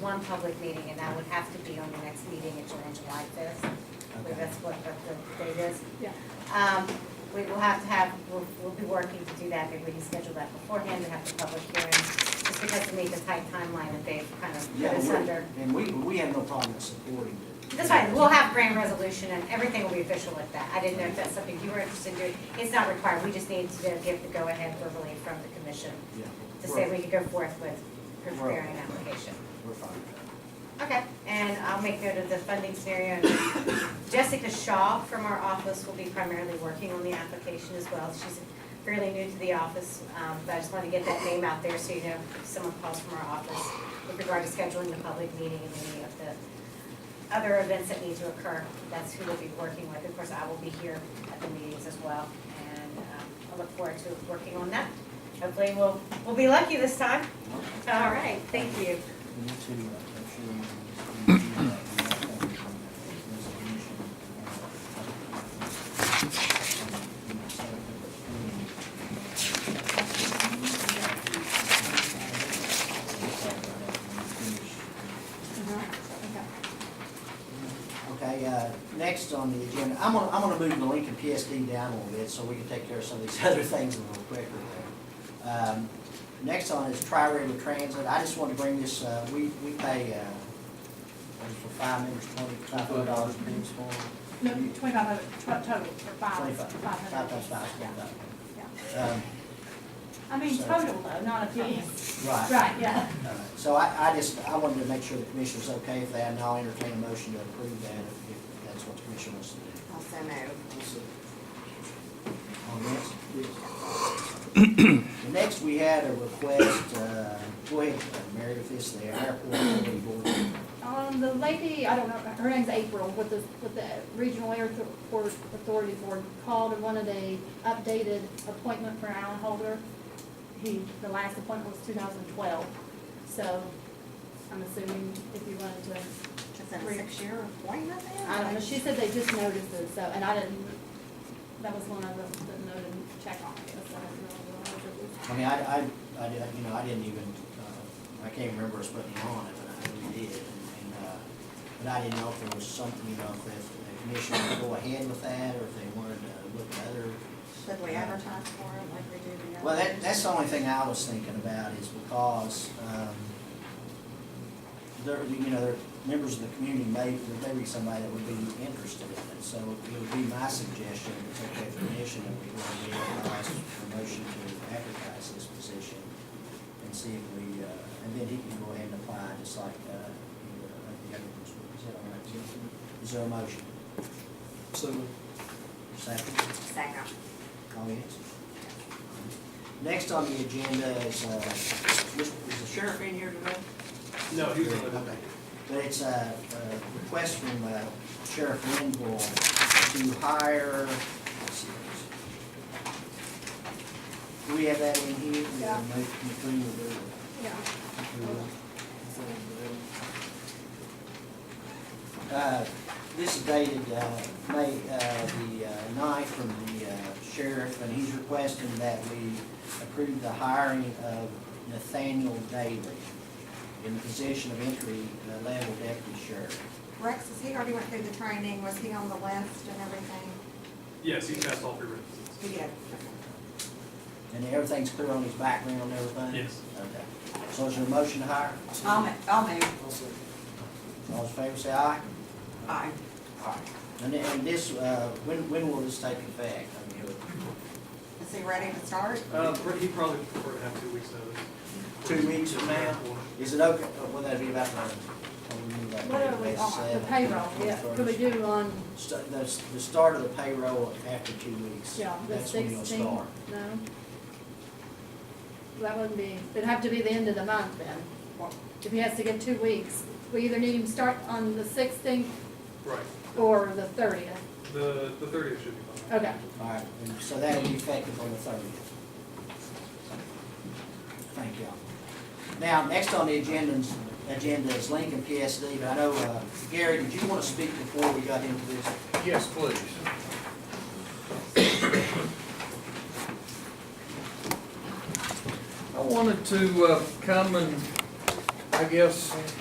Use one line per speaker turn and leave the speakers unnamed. one public meeting, and that would have to be on the next meeting, it's on July fifth. I believe
Okay.
that's what the the date is.
Yeah.
Um, we will have to have, we'll, we'll be working to do that, maybe we can schedule that beforehand, we have the public hearing, just because we need the tight timeline that they've kind of put
Yeah,
us
we're-
under.
And we, we have no problem supporting it.
That's fine, we'll have grand resolution and everything will be official at that. I didn't know if that's something you were interested in doing. It's not required, we just need to give the go-ahead verbally from the commission
Yeah,
to say
we're-
we could go forth with
Right.
preparing an application.
We're fine. with
Okay, and I'll make note of the funding scenario. And Jessica Shaw from our office will be primarily working on the application as well. She's fairly new to the office, um, but I just want to get that name out there so you know if someone calls from our office with regard to scheduling the public meeting and any of the other events that need to occur. That's who we'll be working with. Of course, I will be here at the meetings as well, and um, I look forward to working on that. Hopefully, we'll, we'll be lucky this time.
that.
All right, thank you.
We need to, uh, make sure we- we do that, we have that resolution, uh,
uh-huh,
Okay, uh, next on the agenda, I'm gonna, I'm gonna move the Lincoln PSD down a little bit so we can take care of some of these other things a little quicker there. Um, Next on is Tri-River Transit. I just want to bring this, uh, we, we pay, uh, what is it, for five members, twenty-five hundred dollars a piece for
No, twenty-five hundred, tw- total, or five,
twenty-five,
five
five
hundred.
times five,
Yeah,
twenty-five.
yeah.
Um,
I mean,
So-
total though, not a piece.
Right.
Right, yeah.
Uh, So I, I just, I wanted to make sure the commissioner's okay with that, and I'll entertain a motion to approve that if, if that's what the commission wants to do.
Also move.
On this? The next, we had a request, uh, go ahead, uh, Mary, with this, the airport authority board.
Um, the lady, I don't know, her name's April, with the, with the Regional Airport Authority Board called and wanted a updated appointment for Alan Holder. He, the last appointment was two thousand twelve, so I'm assuming if you wanted to,
Is that a six-year appointment then?
I don't know, she said they just noticed it, so, and I didn't, that was one of the, the note and check on it, so I didn't really realize it was.
I mean, I, I, I, did- you know, I didn't even, uh, I can't remember us putting it on it, but I know we did. And, uh, but I didn't know if there was something, you know, if the commission would go ahead with that, or if they wanted to look at other
Should we advertise for it like we do the other?
Well, that, that's the only thing I was thinking about is because, um, there, you know, there, members of the community may, there may be somebody that would be interested in it. So it would be my suggestion, if it's okay for the commission, that we want to be advised for motion to advertise this position and see if we, uh, and then he can go ahead and apply just like, uh, you know, like the other ones. Is that all right, Jim? Is there a motion?
So,
Second?
Second.
Comments? Next on the agenda is, uh, is the sheriff in here today?
no, he was on the.
Okay. But it's a, a request from uh, Sheriff Linville to hire, let's see. Do we have that in here? We have a motion to approve it. Uh, This is dated, uh, May, uh, the uh, ninth from the uh, sheriff, and he's requesting that we approve the hiring of Nathaniel Daly in the position of entry uh, level deputy sheriff.
Rex, has he already went through the training? Was he on the list and everything?
Yes, he passed all three references.
He did.
And everything's clear on his background and everything?
Yes.
Okay. So is there a motion to hire?
I'll move, I'll move.
All those in favor say aye.
Aye.
Aye. And then, and this, uh, when, when will this take effect? I mean, it-
Is he ready to start?
Uh, he probably prefer to have two weeks notice.
Two weeks from now? Is it okay, uh, will that be about the? oh, we need that-
What are we on, the payroll, yeah, could we do on,
Sta- The, the start of the payroll after two weeks.
yeah, the
That's when you'll
sixteenth, no?
start.
That wouldn't be, it'd have to be the end of the month then, if he has to get two weeks, we either need him to start on the sixteenth
Right,
or the thirtieth,
the, the thirtieth should be fine.
okay.
All right, and so that'll be effective on the thirtieth. Thank y'all. Now, next on the agenda, is- agenda is Lincoln PSD, but I know, uh, Gary, did you want to speak before we got into this?
Yes, please. I wanted to uh, come and, I guess,